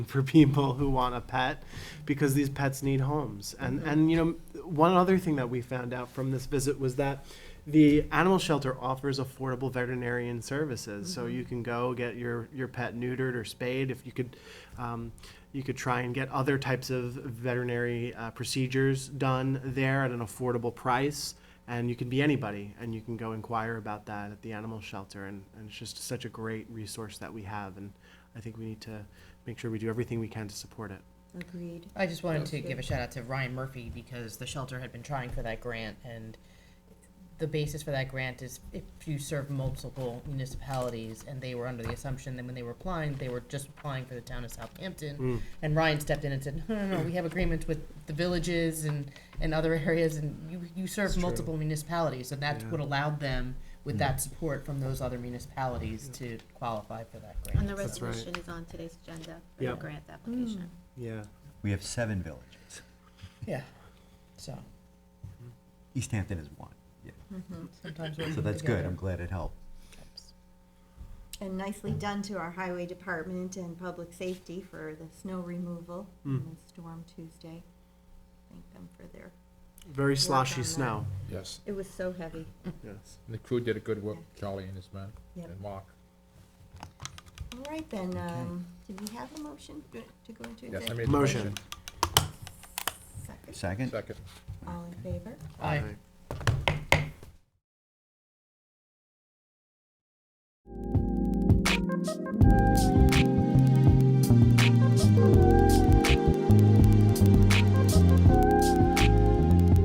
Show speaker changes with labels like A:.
A: for people who want a pet because these pets need homes. And and you know, one other thing that we found out from this visit was that the animal shelter offers affordable veterinarian services. So you can go get your your pet neutered or spayed if you could um, you could try and get other types of veterinary uh, procedures done there at an affordable price. And you can be anybody, and you can go inquire about that at the animal shelter. And, and it's just such a great resource that we have. And I think we need to make sure we do everything we can to support it.
B: Agreed.
C: I just wanted to give a shout out to Ryan Murphy because the shelter had been trying for that grant and the basis for that grant is if you serve multiple municipalities and they were under the assumption that when they were applying, they were just applying for the town of
D: Hmm.
C: Southampton. And Ryan stepped in and said, no, no, no, we have agreements with the villages and, and other areas and you, you serve multiple municipalities. And that's
A: Yeah.
C: what allowed them with
D: Hmm.
C: that support from those other municipalities to qualify for that grant.
B: And the
A: That's right.
B: resolution is on today's agenda for the
A: Yep.
B: grant
E: Mm-hmm.
B: application.
A: Yeah.
D: We have seven villages.
C: Yeah, so
D: East Hampton is one. Yeah.
E: Mm-hmm.
C: sometimes. we're
D: So that's
C: Mm-hmm.
D: good.
C: together.
D: I'm glad it helped.
E: And nicely done to our highway department and public safety for the snow removal
A: Mm.
E: on the storm Tuesday. Thank them for their,
A: Very sloshy
E: on that.
A: snow.
F: Yes,
E: it was so heavy.
A: Yes.
F: and the crew did a good work, Charlie and his men,
E: Yep.
F: and Mark.
E: All right then, um, did we have a motion to go into
F: Yes, I
E: executive?
F: made the
A: Motion.
F: motion.
E: Second?
D: Second?
F: Second.
E: All in favor?
C: Aye.
A: Aye.